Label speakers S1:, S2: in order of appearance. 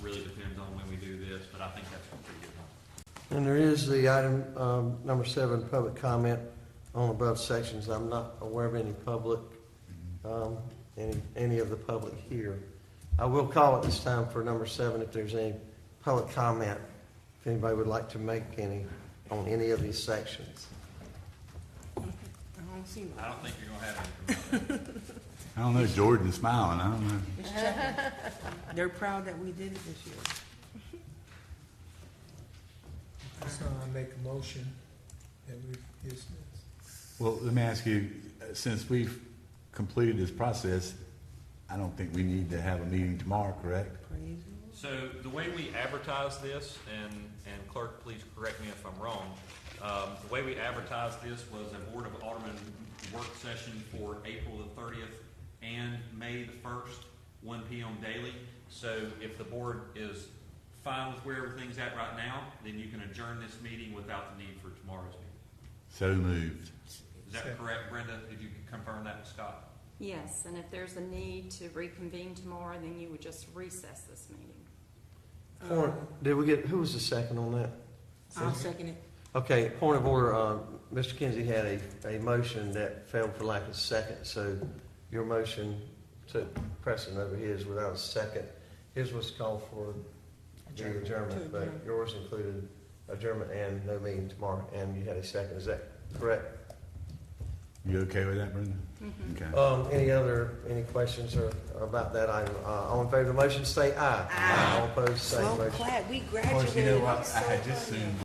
S1: on when we do this, but I think that's a pretty good one.
S2: And there is the item, um, number seven, public comment on above sections. I'm not aware of any public, um, any, any of the public here. I will call at this time for number seven if there's any public comment, if anybody would like to make any on any of these sections.
S3: I don't see
S1: I don't think you're gonna have any from that.
S4: I don't know, Jordan's smiling, I don't know.
S3: one. They're proud that we did it this year.
S5: So I make a motion that we dismiss.
S4: Well, let me ask you, uh, since we've completed this process, I don't think we need to have a meeting tomorrow, correct?
S3: Praise
S1: So the way we advertise this, and, and clerk, please correct me if I'm wrong, um, the way we advertised this was a Board of Aldermen work session for April the thirtieth and May the first, one P M daily. So if the board is fine with where everything's at right now, then you can adjourn this meeting without the need for tomorrow's meeting.
S4: So moved.
S1: Is that correct, Brenda? Did you confirm that with Scott?
S6: Yes, and if there's a need to reconvene tomorrow, then you would just recess this meeting.
S2: Point, did we get, who was the second on that?
S3: I'll second it.
S2: Okay, point of order, uh, Mr. Kinsey had a, a motion that failed for lack of second, so your motion took precedent over his without a second. His was called for the adjournment, but
S3: adjourn.
S2: yours included adjournment and no meeting tomorrow, and you had a second, is that correct?
S4: You okay with that, Brenda?
S3: Mm-hmm.
S4: Okay.
S2: Um, any other, any questions or about that item? Uh, all in favor of the motion, say aye. Aye. All opposed, say
S3: So
S2: motion.
S3: glad we
S4: Of course, you
S3: graduated.
S4: know
S3: I'm
S4: what, I
S3: so
S4: had just
S3: glad.
S4: assumed